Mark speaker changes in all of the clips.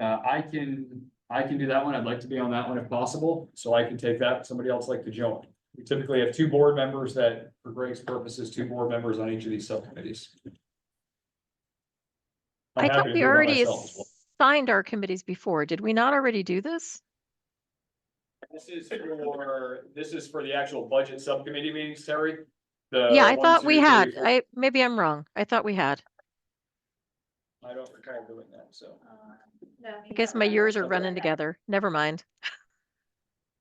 Speaker 1: Uh, I can, I can do that one. I'd like to be on that one if possible, so I can take that, if somebody else like to join. We typically have two board members that, for Greg's purposes, two board members on each of these subcommittees. I'm
Speaker 2: I
Speaker 1: happy
Speaker 2: thought
Speaker 1: to
Speaker 2: we
Speaker 1: do it by
Speaker 2: already
Speaker 1: myself as well.
Speaker 2: signed our committees before. Did we not already do this?
Speaker 1: This is for, this is for the actual budget subcommittee meetings, Terry. The
Speaker 2: Yeah, I
Speaker 1: Uh, one,
Speaker 2: thought
Speaker 1: two,
Speaker 2: we
Speaker 1: three,
Speaker 2: had.
Speaker 1: four-
Speaker 2: I, maybe I'm wrong. I thought we had.
Speaker 1: I don't recall doing that, so.
Speaker 2: I guess my years are running together. Never mind.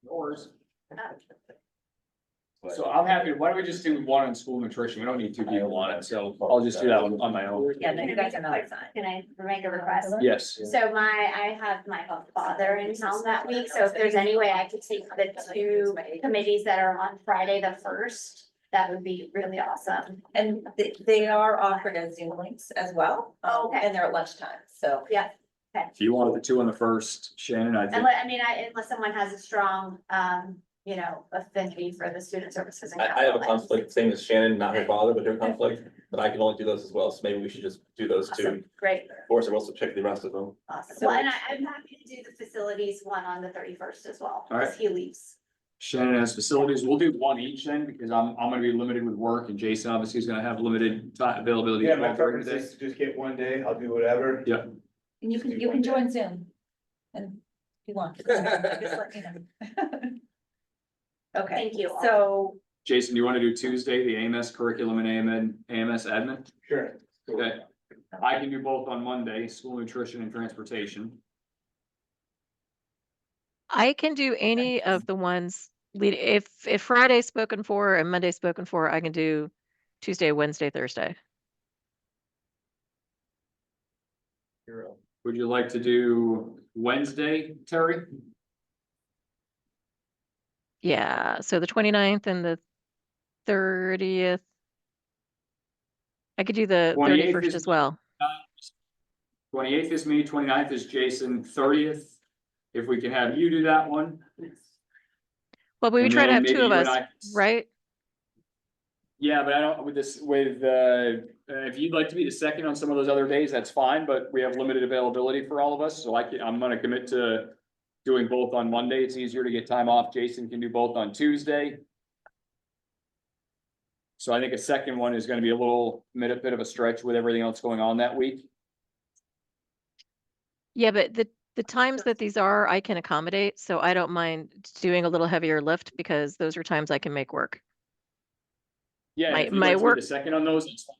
Speaker 1: Yours.
Speaker 3: But-
Speaker 1: So I'm happy, why don't we just do one on school nutrition? We don't need two people on it, so I'll just do that one on my own.
Speaker 4: Yeah, no, you guys are not.
Speaker 5: Can I make a request?
Speaker 1: Yes.
Speaker 5: So my, I have my father in town that week, so if there's any way I could take the two committees that are on Friday the first, that would be really awesome.
Speaker 4: And they, they are offered as Zoom links as well. um,
Speaker 5: Okay.
Speaker 4: And they're at lunchtime, so.
Speaker 5: Yeah,
Speaker 1: If you wanted the two on the first, Shannon, I think,
Speaker 5: unless, I mean, I, unless someone has a strong, um, you know, affinity for the student services. and
Speaker 3: I, I have a
Speaker 5: capital ed.
Speaker 3: conflict, same as Shannon, not her father, but her conflict, but I can only do those as well, so maybe we should just do those two.
Speaker 5: Awesome, Great,
Speaker 3: Or so we'll also check the rest of them.
Speaker 5: awesome.
Speaker 4: uh, So
Speaker 5: Well, and I,
Speaker 4: it's-
Speaker 5: I'm happy to do the facilities one on the thirty-first as well,
Speaker 1: All right.
Speaker 5: because he leaves.
Speaker 1: Shannon has facilities. We'll do one each then, because I'm, I'm gonna be limited with work and Jason obviously is gonna have limited time availability.
Speaker 6: Yeah, my
Speaker 1: during
Speaker 6: preference
Speaker 1: the day.
Speaker 6: is to just get one day, I'll do whatever.
Speaker 1: Yeah.
Speaker 4: And you can, you can join Zoom. And if you want. Just let me know. Okay,
Speaker 5: Thank you all.
Speaker 4: so
Speaker 1: Jason, do you wanna do Tuesday, the AMS curriculum and AMN, AMS admin?
Speaker 6: Sure.
Speaker 1: Okay. I can do both on Monday, school nutrition and transportation.
Speaker 2: I can do any of the ones lead, if, if Friday's spoken for and Monday's spoken for, I can do Tuesday, Wednesday, Thursday.
Speaker 1: Would you like to do Wednesday, Terry?
Speaker 2: Yeah, so the 29th and the thirtieth. I could do the
Speaker 1: 28th
Speaker 2: thirty-first
Speaker 1: is-
Speaker 2: as well.
Speaker 1: Twenty-eighth is me, 29th is Jason, thirtieth. If we can have you do that one.
Speaker 2: Well, we
Speaker 1: and
Speaker 2: try to
Speaker 1: then
Speaker 2: have
Speaker 1: maybe
Speaker 2: two of
Speaker 1: you and
Speaker 2: us,
Speaker 1: I-
Speaker 2: right?
Speaker 1: Yeah, but I don't, with this, with, uh, uh, if you'd like to be the second on some of those other days, that's fine, but we have limited availability for all of us, so I can, I'm gonna commit to doing both on Monday. It's easier to get time off. Jason can do both on Tuesday. So I think a second one is gonna be a little, bit a bit of a stretch with everything else going on that week.
Speaker 2: Yeah, but the, the times that these are, I can accommodate, so I don't mind doing a little heavier lift because those are times I can make work.
Speaker 1: Yeah, and
Speaker 2: My-
Speaker 1: if you'd
Speaker 2: my
Speaker 1: like to
Speaker 2: work-
Speaker 1: be the second on those, it's fine.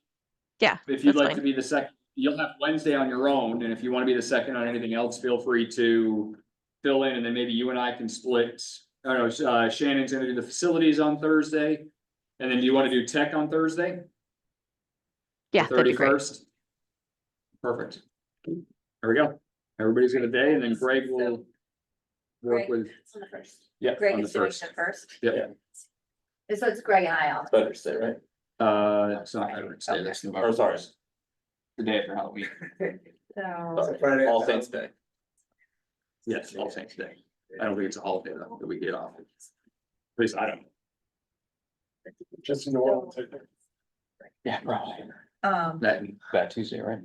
Speaker 2: Yeah,
Speaker 1: If you'd
Speaker 2: that's
Speaker 1: like
Speaker 2: fine.
Speaker 1: to be the second, you'll have Wednesday on your own, and if you wanna be the second on anything else, feel free to fill in, and then maybe you and I can split. I don't know, uh, Shannon's gonna do the facilities on Thursday, and then do you wanna do tech on Thursday?
Speaker 2: Yeah, that'd be great.
Speaker 1: Thirty-first? Perfect. There we go. Everybody's got a day, and then Greg will work
Speaker 4: Greg-
Speaker 1: with,
Speaker 5: It's on the first.
Speaker 1: yeah,
Speaker 4: Greg
Speaker 1: on the
Speaker 4: is doing
Speaker 1: first.
Speaker 4: the first.
Speaker 1: Yep,
Speaker 5: So it's Greg and I all.
Speaker 3: Better to say, right?
Speaker 1: uh, it's not Veterans Day, that's November.
Speaker 3: Or sorry,
Speaker 1: Oh, The day after Halloween.
Speaker 4: So
Speaker 3: sorry, All Saints Day.
Speaker 1: Yes, All Saints Day. I don't think it's a holiday though, that we get off. At least I don't.
Speaker 6: Just in the world.
Speaker 1: Yeah, probably.
Speaker 4: um,
Speaker 1: That, that Tuesday, right?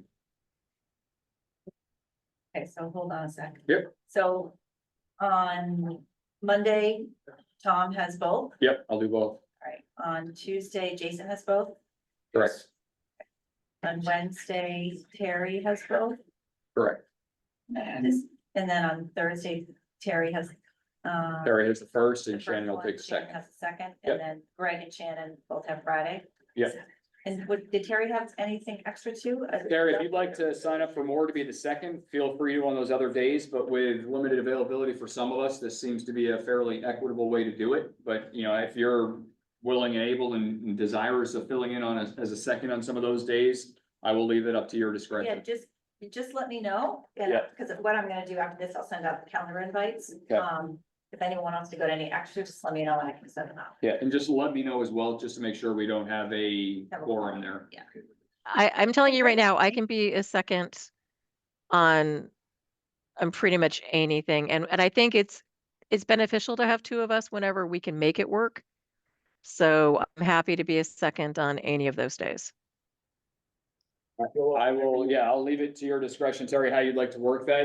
Speaker 4: okay, so hold on a sec.
Speaker 1: Yep.
Speaker 4: So on Monday, Tom has both.
Speaker 1: Yep, I'll do both.
Speaker 4: All right. On Tuesday, Jason has both.
Speaker 1: Correct,
Speaker 4: On Wednesday, Terry has both.
Speaker 1: correct.
Speaker 4: And then on Thursday, Terry has, uh.
Speaker 1: Terry has the first and
Speaker 4: the first
Speaker 1: Shannon will
Speaker 4: one,
Speaker 1: take the
Speaker 4: Shannon
Speaker 1: second.
Speaker 4: Has the second,
Speaker 1: Yep.
Speaker 4: and then Greg and Shannon both have Friday.
Speaker 1: Yep.
Speaker 4: And would, did Terry have anything extra too? Uh,
Speaker 1: Terry, if you'd like to sign up for more to be the second, feel free to on those other days, but with limited availability for some of us, this seems to be a fairly equitable way to do it. But, you know, if you're willing and able and and desirous of filling in on a- as a second on some of those days, I will leave it up to your
Speaker 4: Yeah,
Speaker 1: discretion.
Speaker 4: just, just let me know, and,
Speaker 1: Yeah.
Speaker 4: because what I'm gonna do after this, I'll send out the calendar invites.
Speaker 1: Okay.
Speaker 4: Um, if anyone wants to go to any extra, just let me know and I can send them out.
Speaker 1: Yeah, and just let me know as well, just to make sure we don't have a
Speaker 4: Have a
Speaker 1: quorum there.
Speaker 2: I, I'm telling you right now, I can be a second on, on pretty much anything. And, and I think it's, it's beneficial to have two of us whenever we can make it work. So I'm happy to be a second on any of those days.
Speaker 1: I will, yeah, I'll leave it to your discretion, Terry, how you'd like to work that.